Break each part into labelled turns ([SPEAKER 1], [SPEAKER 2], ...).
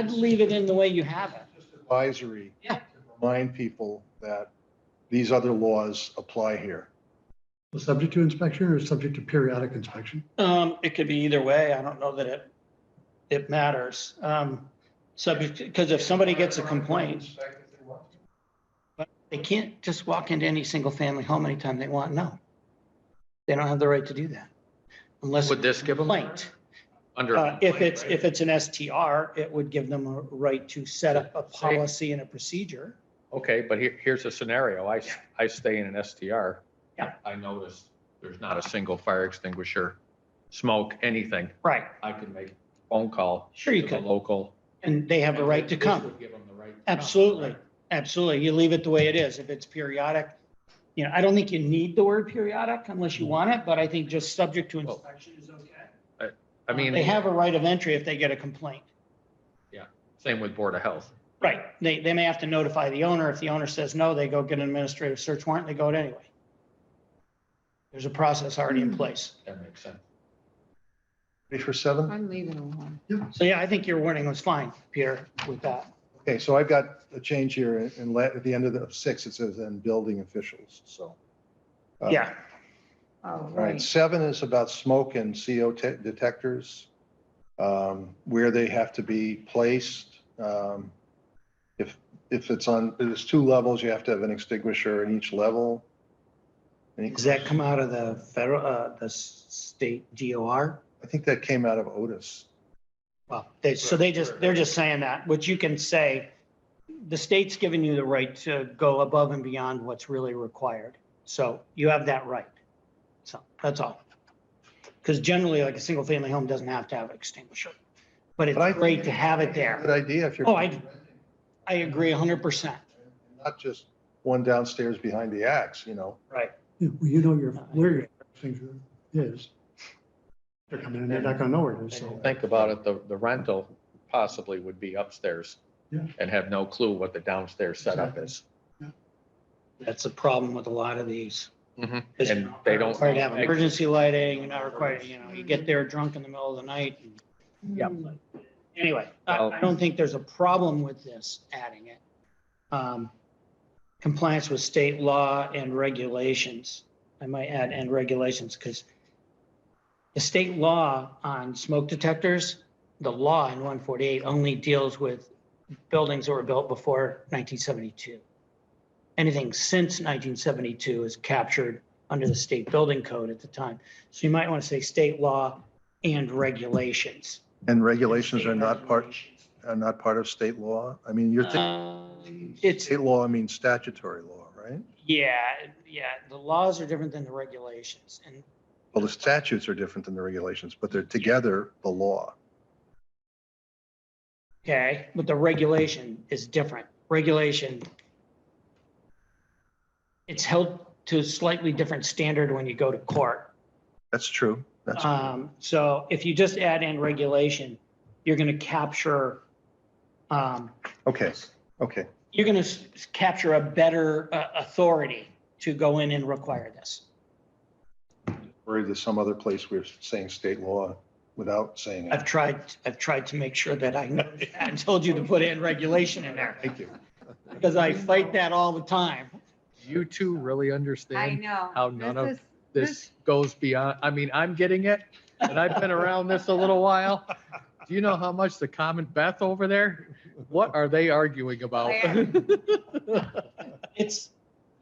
[SPEAKER 1] I'd leave it in the way you have it.
[SPEAKER 2] Just Advisory.
[SPEAKER 1] Yeah.
[SPEAKER 2] to Remind people that these other laws apply here.
[SPEAKER 3] Well, Subject to inspection or subject to periodic inspection?
[SPEAKER 1] Um, it could be either way. I don't know that it, it matters. Um, subject, because if somebody gets a complaint, they can't just walk into any single family home anytime they want. No. They don't have the right to do that unless
[SPEAKER 4] Would
[SPEAKER 1] it's
[SPEAKER 4] this
[SPEAKER 1] a
[SPEAKER 4] give them
[SPEAKER 1] complaint.
[SPEAKER 4] under?
[SPEAKER 1] Uh, if it's, if it's an STR, it would give them a right to set up a policy and a procedure.
[SPEAKER 4] Okay, but here, here's a scenario. I, s- I stay in an STR.
[SPEAKER 1] Yeah.
[SPEAKER 4] I notice there's not a single fire extinguisher, smoke, anything.
[SPEAKER 1] Right.
[SPEAKER 4] I can make a phone call
[SPEAKER 1] Sure
[SPEAKER 4] to
[SPEAKER 1] you
[SPEAKER 4] the
[SPEAKER 1] could.
[SPEAKER 4] local.
[SPEAKER 1] And they have a right to
[SPEAKER 4] This
[SPEAKER 1] come.
[SPEAKER 4] would give them the right to come,
[SPEAKER 1] Absolutely.
[SPEAKER 4] correct?
[SPEAKER 1] Absolutely. You leave it the way it is. If it's periodic, you know, I don't think you need the word periodic unless you want it, but I think just subject to
[SPEAKER 4] Well,
[SPEAKER 1] inspection is okay.
[SPEAKER 4] I
[SPEAKER 1] They
[SPEAKER 4] mean,
[SPEAKER 1] have a right of entry if they get a complaint.
[SPEAKER 4] same with Board of Health.
[SPEAKER 1] Right. They, they may have to notify the owner. If the owner says no, they go get an administrative search warrant. They go it anyway. There's a process already in place.
[SPEAKER 4] That makes sense.
[SPEAKER 2] Ready for seven?
[SPEAKER 5] I'm leaving alone.
[SPEAKER 1] So yeah, I think your warning was fine, Peter, with that.
[SPEAKER 2] Okay, so I've got a change here and let, at the end of the of six, it says, and building officials, so. uh,
[SPEAKER 1] Yeah.
[SPEAKER 5] Oh,
[SPEAKER 2] All right, seven is about smoke and CO te- detectors, um, where they have to be placed. Um, If, if it's on, there's two levels, you have to have an extinguisher in each level. Any-
[SPEAKER 1] Does that come out of the federal, uh, the s- state DOR?
[SPEAKER 2] I think that came out of Otis.
[SPEAKER 1] Well, they, so they just, they're just saying that, which you can say, the state's giving you the right to go above and beyond what's really required. So you have that right. So that's all. Because generally, like a single family home doesn't have to have an extinguisher, but
[SPEAKER 2] But I-
[SPEAKER 1] it's great to have it
[SPEAKER 2] Good
[SPEAKER 1] there.
[SPEAKER 2] idea if you're.
[SPEAKER 1] Oh, I, I agree hundred percent.
[SPEAKER 2] Not just one downstairs behind the axe, you know?
[SPEAKER 1] Right.
[SPEAKER 3] Yeah, well, you know your, where your thing is. They're coming in, they're not gonna know where it is, so.
[SPEAKER 4] Think about it, the, the rental possibly would be upstairs
[SPEAKER 3] Yeah.
[SPEAKER 4] and have no clue what the downstairs setup
[SPEAKER 3] Exactly.
[SPEAKER 4] is.
[SPEAKER 1] That's the problem with a lot of these.
[SPEAKER 4] Mhm.
[SPEAKER 1] It's
[SPEAKER 4] And they don't-
[SPEAKER 1] Required to have emergency lighting, you're not required, you know, you get there drunk in the middle of the night. and
[SPEAKER 4] Yeah.
[SPEAKER 5] Hmm.
[SPEAKER 1] Mm. Anyway, I,
[SPEAKER 4] Well-
[SPEAKER 1] I don't think there's a problem with this adding it. Um, Compliance with state law and regulations. I might add and regulations because the state law on smoke detectors, the law in one forty-eight only deals with buildings that were built before nineteen seventy-two. Anything since nineteen seventy-two is captured under the state building code at the time. So you might want to say state law and regulations.
[SPEAKER 2] And regulations are
[SPEAKER 1] State
[SPEAKER 2] not part,
[SPEAKER 1] regulations.
[SPEAKER 2] are not part of state law? I mean, you're thinking,
[SPEAKER 1] Um, Uh, It's,
[SPEAKER 2] state law means statutory law, right?
[SPEAKER 1] yeah, yeah, the laws are different than the regulations and
[SPEAKER 2] Well, the statutes are different than the regulations, but they're together the law.
[SPEAKER 1] Okay, but the regulation is different. Regulation. It's held to a slightly different standard when you go to court.
[SPEAKER 2] That's true. That's,
[SPEAKER 1] Um, so if you just add in regulation, you're gonna capture, um,
[SPEAKER 2] okay, okay.
[SPEAKER 1] you're gonna s- capture a better, uh, authority to go in and require this.
[SPEAKER 2] Or there's some other place we're saying state law without saying
[SPEAKER 1] I've
[SPEAKER 2] it.
[SPEAKER 1] tried, I've tried to make sure that I, know- I told you to put in regulation in there
[SPEAKER 2] Thank you.
[SPEAKER 1] because I fight that all the time.
[SPEAKER 4] You two really
[SPEAKER 5] I
[SPEAKER 4] understand
[SPEAKER 5] know.
[SPEAKER 4] how none
[SPEAKER 5] This
[SPEAKER 4] of
[SPEAKER 5] is-
[SPEAKER 4] this goes beyond, I mean, I'm getting it, and I've been around this a little while. Do you know how much the common Beth over there, what are they arguing about?
[SPEAKER 1] It's,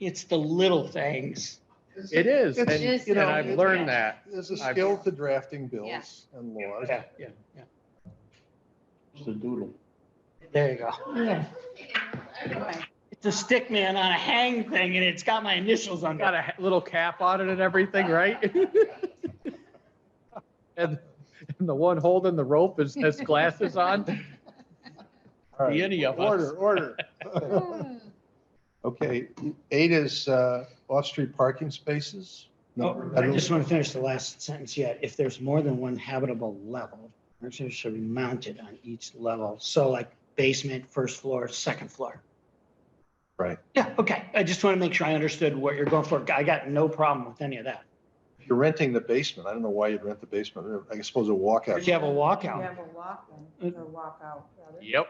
[SPEAKER 1] it's the little things.
[SPEAKER 4] It is, and,
[SPEAKER 2] It's
[SPEAKER 5] just-
[SPEAKER 4] and I've learned that.
[SPEAKER 2] There's a
[SPEAKER 4] I've-
[SPEAKER 2] skill to drafting bills and laws.
[SPEAKER 1] Yeah, yeah, yeah.
[SPEAKER 6] It's a doodle.
[SPEAKER 1] There you go.
[SPEAKER 5] Yeah.
[SPEAKER 1] It's a stick man on a hang thing and it's got my initials on
[SPEAKER 4] Got
[SPEAKER 1] it.
[SPEAKER 4] a ha- little cap on it and everything, right? And, and the one holding the rope is, has glasses on,
[SPEAKER 2] All right.
[SPEAKER 4] be any of us.
[SPEAKER 2] Order, order. Okay, eight is uh, off-street parking spaces.
[SPEAKER 1] Oh,
[SPEAKER 2] No,
[SPEAKER 1] I just want to finish the last sentence yet. If there's more than one habitable level, furniture should be mounted on each level. So like basement, first floor, second floor.
[SPEAKER 2] Right.
[SPEAKER 1] Yeah, okay. I just want to make sure I understood what you're going for. I got no problem with any of that.
[SPEAKER 2] If You're renting the basement. I don't know why you'd rent the basement. I suppose a walkout.
[SPEAKER 1] If you have a
[SPEAKER 5] You
[SPEAKER 1] walkout.
[SPEAKER 5] have a walk-in, or walk-out, rather.
[SPEAKER 4] Yep.